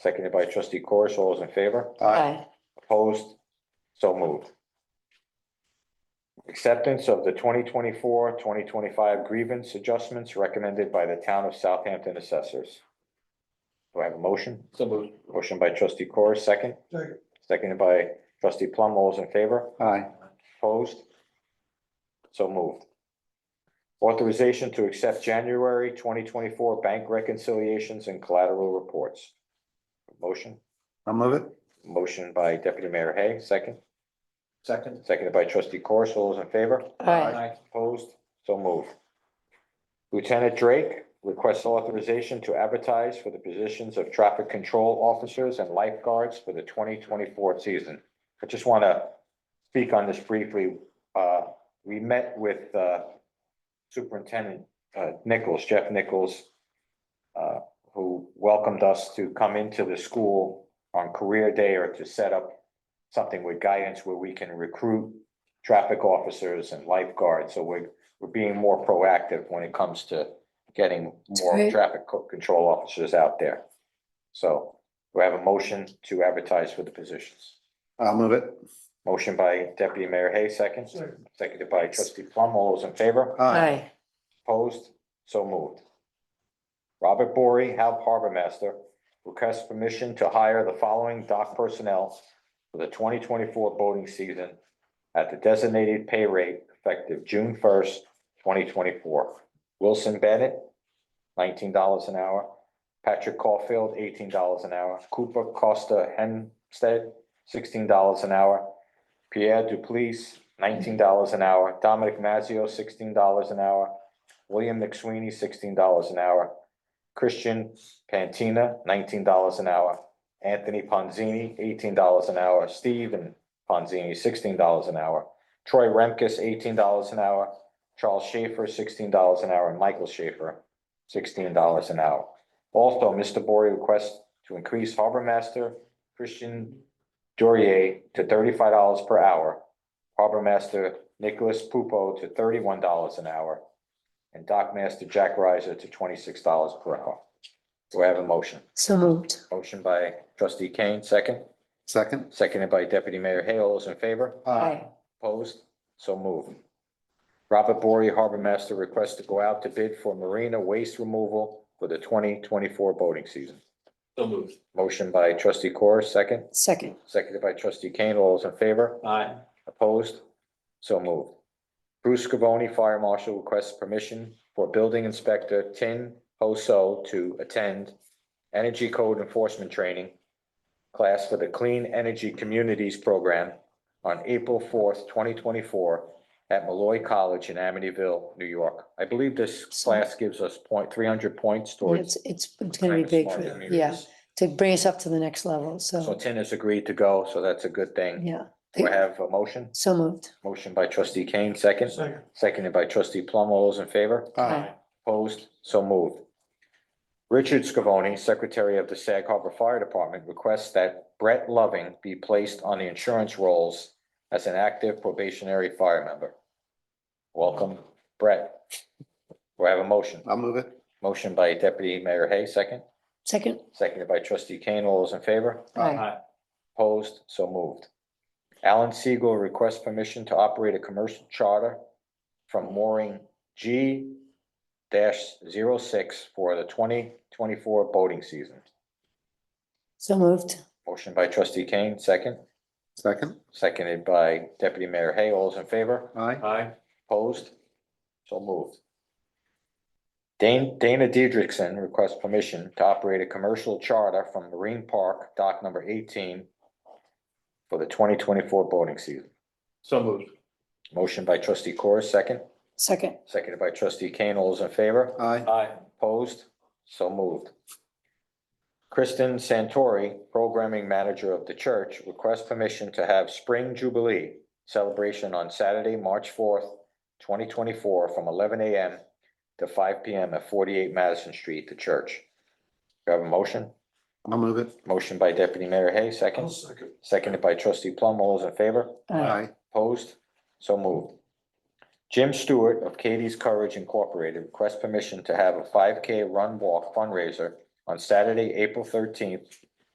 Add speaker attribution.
Speaker 1: seconded by trustee Corish. All those in favor?
Speaker 2: Aye.
Speaker 1: Opposed? So moved. Acceptance of the 2024-2025 grievance adjustments recommended by the town of Southampton assessors. Do I have a motion?
Speaker 3: So moved.
Speaker 1: Motion by trustee Corish, second.
Speaker 3: Second.
Speaker 1: Seconded by trustee Plum. All those in favor?
Speaker 2: Aye.
Speaker 1: Opposed? So moved. Authorization to accept January twenty twenty-four bank reconciliations and collateral reports. Motion,
Speaker 2: I'll move it.
Speaker 1: motion by deputy mayor Hay, second,
Speaker 3: Second.
Speaker 1: seconded by trustee Corus. All those in favor?
Speaker 2: Aye.
Speaker 1: Opposed? So moved. Lieutenant Drake requests authorization to advertise for the positions of traffic control officers and lifeguards for the twenty twenty-four season. I just want to speak on this briefly. Uh, we met with, uh, Superintendent, uh, Nichols, Jeff Nichols, uh, who welcomed us to come into the school on career day or to set up something with guidance where we can recruit traffic officers and lifeguards, so we're, we're being more proactive when it comes to getting more
Speaker 4: Great.
Speaker 1: traffic co- control officers out there. So we have a motion to advertise for the positions.
Speaker 2: I'll move it.
Speaker 1: Motion by deputy mayor Hay, second, seconded by trustee Plum, all those in favor?
Speaker 2: Aye.
Speaker 1: Opposed? So moved. Robert Bory, Hal Harbor Master, requests permission to hire the following dock personnel for the twenty twenty-four boating season at the designated pay rate effective June first, twenty twenty-four. Wilson Bennett, nineteen dollars an hour. Patrick Caulfield, eighteen dollars an hour. Cooper Costa Hempstead, sixteen dollars an hour. Pierre Duplice, nineteen dollars an hour. Dominic Mazzio, sixteen dollars an hour. William McSweeney, sixteen dollars an hour. Christian Pantina, nineteen dollars an hour. Anthony Ponzini, eighteen dollars an hour. Steven Ponzini, sixteen dollars an hour. Troy Remkus, eighteen dollars an hour. Charles Schaefer, sixteen dollars an hour, and Michael Schaefer, sixteen dollars an hour. Also, Mr. Bory requests to increase harbor master Christian Dorier to thirty-five dollars per hour. Harbor master Nicholas Pupo to thirty-one dollars an hour. And dock master Jack Riser to twenty-six dollars per hour. Do I have a motion?
Speaker 4: So moved.
Speaker 1: Motion by trustee Kane, second,
Speaker 2: Second.
Speaker 1: seconded by deputy mayor Hale. All those in favor?
Speaker 4: Aye.
Speaker 1: Opposed? So moved. Robert Bory, harbor master, requests to go out to bid for marina waste removal for the twenty twenty-four boating season.
Speaker 3: So moved.
Speaker 1: Motion by trustee Corr, second,
Speaker 4: Second.
Speaker 1: seconded by trustee Kane. All those in favor?
Speaker 3: Aye.
Speaker 1: Opposed? So moved. Bruce Scavone, Fire Marshal, requests permission for Building Inspector Tin Ho So to attend Energy Code Enforcement Training class for the Clean Energy Communities Program on April fourth, twenty twenty-four at Malloy College in Amityville, New York. I believe this class gives us point, three hundred points towards.
Speaker 4: It's, it's, it's gonna be big for, yeah,
Speaker 1: communities.
Speaker 4: to bring us up to the next level,
Speaker 1: So
Speaker 4: so,
Speaker 1: Tin has agreed to go, so that's a good thing.
Speaker 4: yeah.
Speaker 1: We have a motion,
Speaker 4: So moved.
Speaker 1: motion by trustee Kane, second.
Speaker 3: Second.
Speaker 1: Seconded by trustee Plum. All those in favor?
Speaker 4: Aye.
Speaker 1: Opposed? So moved. Richard Scavone, Secretary of the Sag Harbor Fire Department, requests that Brett Loving be placed on the insurance rolls as an active probationary fire member. Welcome, Brett. We have a motion.
Speaker 2: I'll move it.
Speaker 1: Motion by Deputy Mayor Hay, second.
Speaker 4: Second.
Speaker 1: Seconded by trustee Kane. All those in favor?
Speaker 4: Aye.
Speaker 3: Aye.
Speaker 1: Opposed, so moved. Alan Siegel requests permission to operate a commercial charter from mooring G 6 for the twenty twenty-four boating season.
Speaker 4: So moved.
Speaker 1: Motion by trustee Kane, second,
Speaker 2: Second.
Speaker 1: seconded by deputy mayor Hay. All those in favor?
Speaker 2: Aye.
Speaker 3: Aye.
Speaker 1: Opposed? So moved. Dane- Dana Diedrichsen requests permission to operate a commercial charter from Marine Park, dock number eighteen for the twenty twenty-four boating season.
Speaker 3: So moved.
Speaker 1: Motion by trustee Corr, second,
Speaker 4: Second.
Speaker 1: seconded by trustee Kane. All those in favor?
Speaker 2: Aye.
Speaker 3: Aye.
Speaker 1: Opposed? So moved. Kristen Santori, Programming Manager of the church, requests permission to have Spring Jubilee celebration on Saturday, March fourth, twenty twenty-four, from eleven AM to five PM at forty-eight Madison Street, the church. Do you have a motion?
Speaker 2: I'll move it.
Speaker 1: Motion by Deputy Mayor Hay, second,
Speaker 3: second.
Speaker 1: seconded by trustee Plum. All those in favor?
Speaker 2: Aye.
Speaker 1: Opposed? So moved. Jim Stewart of Katie's Courage Incorporated requests permission to have a five K run walk fundraiser on Saturday, April thirteenth